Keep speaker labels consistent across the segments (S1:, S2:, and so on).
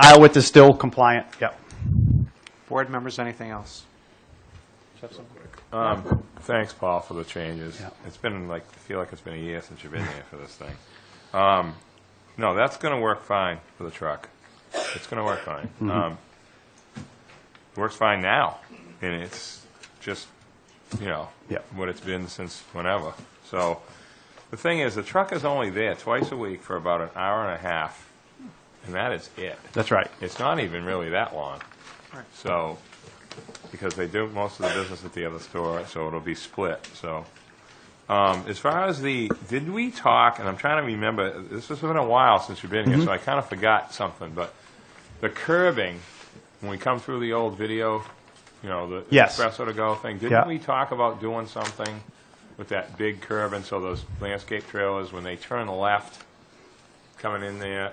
S1: Iowit is still compliant, yep.
S2: Board members, anything else?
S3: Um, Thanks, Paul, for the changes.
S1: Yeah.
S3: It's been like, I feel like it's been a year since you've been here for this thing. Um, No, that's going to work fine for the truck. It's going to work fine.
S1: Mm-hmm.
S3: Um, it Works fine now, and it's just, you know,
S1: Yeah.
S3: what it's been since whenever. So the thing is, the truck is only there twice a week for about an hour and a half, and that is it.
S1: That's right.
S3: It's not even really that long.
S2: Right.
S3: So, because they do most of the business at the other store, so it'll be split, so. Um, As far as the, did we talk, and I'm trying to remember, this has been a while since you've been
S1: Mm-hmm.
S3: here, so I kind of forgot something, but the curbing, when we come through the old video, you know, the
S1: Yes.
S3: espresso to go thing,
S1: Yeah.
S3: didn't we talk about doing something with that big curb and so those landscape trailers, when they turn left, coming in there,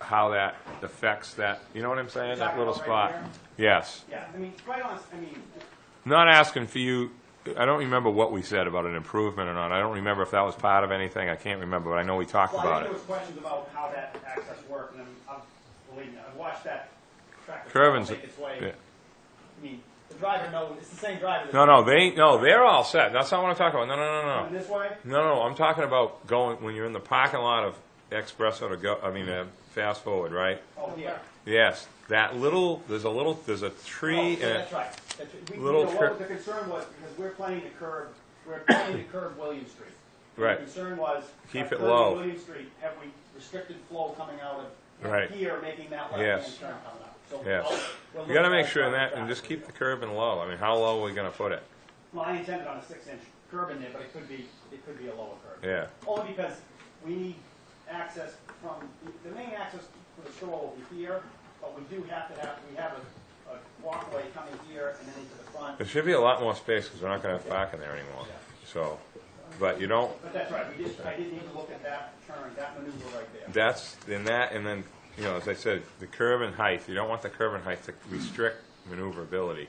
S3: how that affects that, you know what I'm saying, that little
S2: Talking about
S3: spot?
S2: right
S3: Yes.
S2: Yeah, I mean, quite honest, I mean,
S3: Not asking for you, I don't remember what we said about an improvement or not, I don't remember if that was part of anything, I can't remember, but I know we talked
S4: Well, I
S3: about
S4: think
S3: it.
S4: there was questions about how that access worked, and I'm, I'm, believe me, I've watched that tractor trailer
S3: Curving's,
S4: make its way.
S3: yeah.
S4: I mean, the driver knows, it's the same driver. that's
S3: no, no, they, no, they're all set, that's not what I'm talking about, no, no, no, no.
S4: Coming this way,
S3: No, no, I'm talking about going, when you're in the parking lot of Expresso to go, I mean, uh, Fast Forward, right?
S4: oh, yeah.
S3: Yes, that little, there's a little, there's a
S4: Oh,
S3: tree,
S4: so
S3: and
S4: that's right. That's right. We, you
S3: little
S4: know,
S3: trip-
S4: what the concern was, because we're planning to curb, we're planning to curb William Street. And
S3: Right.
S4: The concern was. by
S3: Keep it
S4: curbing
S3: low.
S4: William Street, have we restricted flow coming out
S3: Right.
S4: of here, making that
S3: Yes.
S4: left-hand turn coming out? So
S3: Yes.
S4: we'll- we'll
S3: you gotta
S4: look at
S3: make sure in that,
S4: traffic
S3: and just
S4: traffic.
S3: keep the curb and low, I mean, how low are we gonna put it?
S4: Well, I intended on a six-inch curb in there, but it could be, it could be a lower curb.
S3: Yeah,
S4: Only because we need access from, the- the main access for the store will be here, but we do have to have, we have a, a walkway coming here and then into the front.
S3: there should be a lot more space, because we're not gonna have parking there anymore, so, but you don't,
S4: But that's right, we just, I did need to look at that turn, that maneuver right there.
S3: that's, then that, and then, you know, as I said, the curb and height, you don't want the curb and height to restrict maneuverability.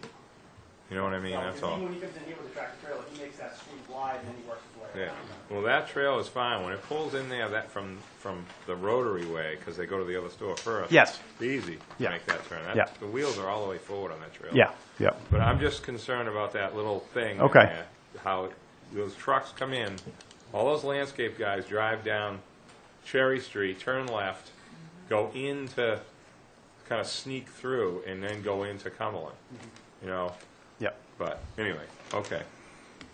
S3: You know what I mean,
S4: So,
S3: that's
S4: because
S3: all.
S4: Even when he comes in here with the tractor trailer, he makes that sweep wide and then he works his way
S3: Yeah,
S4: around.
S3: well, that trail is fine, when it pulls in there, that from, from the rotary way, because they go to the other store first.
S1: Yes.
S3: It's easy to
S1: Yeah.
S3: make that turn,
S1: Yeah.
S3: that, the wheels are all the way forward on that trail.
S1: Yeah, yep.
S3: But I'm just concerned about that little thing. in
S1: Okay.
S3: there, How it- those trucks come in, all those landscape guys drive down Cherry Street, turn left, go into, kind of sneak through, and then go into Cumberland, you know?
S1: Yep.
S3: But, anyway, okay,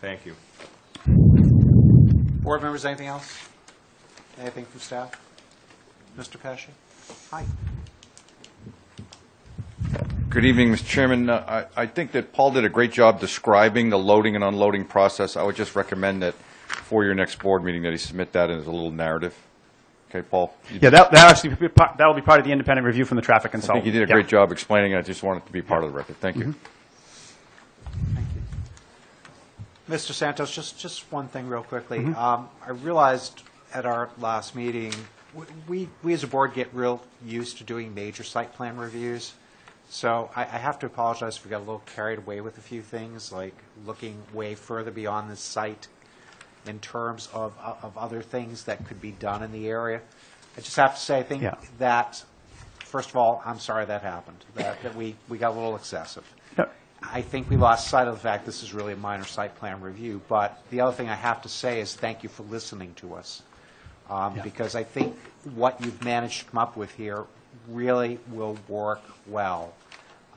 S3: thank you.
S2: board members, anything else? Anything from staff? Mr. Pesci? Hi.
S5: Good evening, Mr. Chairman. Uh, I I think that Paul did a great job describing the loading and unloading process. I would just recommend that for your next board meeting, that he submit that as a little narrative. Okay, Paul? You-
S1: Yeah, that, that actually, be part- that'll be part of the independent review from the traffic
S5: I
S1: consultant.
S5: think you did a
S1: Yeah. Mm-hmm.
S5: great job explaining it. I just wanted it to be part of the record. Thank you.
S2: Mr. Santos, just, just one thing real quickly. Um, I realized at our last meeting, w- we, we as a board get real used to doing major site plan reviews. So I, I have to apologize if we got a little carried away with a few things, like looking way further beyond the site in terms of, of other things that could be done in the area. I just have to say, I think
S1: Yeah.
S2: that, first of all, I'm sorry that happened, that, that we, we got a little excessive.
S1: Yeah.
S2: I think we lost sight of the fact this is really a minor site plan review, but the other thing I have to say is thank you for listening to us. Um,
S1: Yeah.
S2: Because I think what you've managed to come up with here really will work well.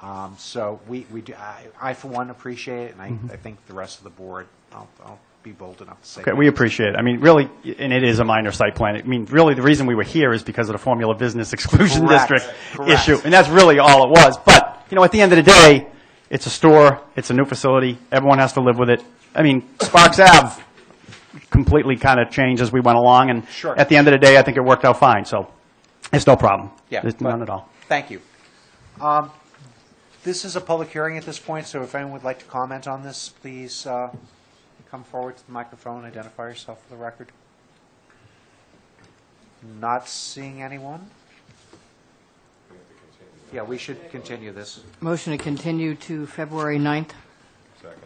S2: Um, So we, we, do- I, I for one appreciate it, and I, I think the rest of the board, I'll, I'll be bold enough to say.
S1: Mm-hmm. Okay, we appreciate it. I mean, really, and it is a minor site plan. I mean, really, the reason we were here is because of the formula business exclusion
S2: Correct.
S1: district
S2: Correct.
S1: issue. And that's really all it was. But, you know, at the end of the day, it's a store, it's a new facility, everyone has to live with it. I mean, Sparks Ave completely kind of changed as we went along, and
S2: Sure.
S1: at the end of the day, I think it worked out fine, so it's no problem.
S2: Yeah,
S1: It's
S2: but-
S1: none at all.
S2: Thank you. Um, This is a public hearing at this point, so if anyone would like to comment on this, please uh, come forward to the microphone, identify yourself for the record. Not seeing anyone? Yeah, we should continue this.
S6: Motion to continue to February 9th.
S3: Second.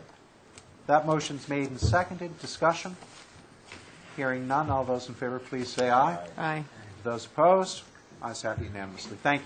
S2: That motion's made and seconded. Discussion? Hearing none. All those in favor, please say aye.
S6: Aye.
S2: Those opposed? Ayes have unanimously. Thank you.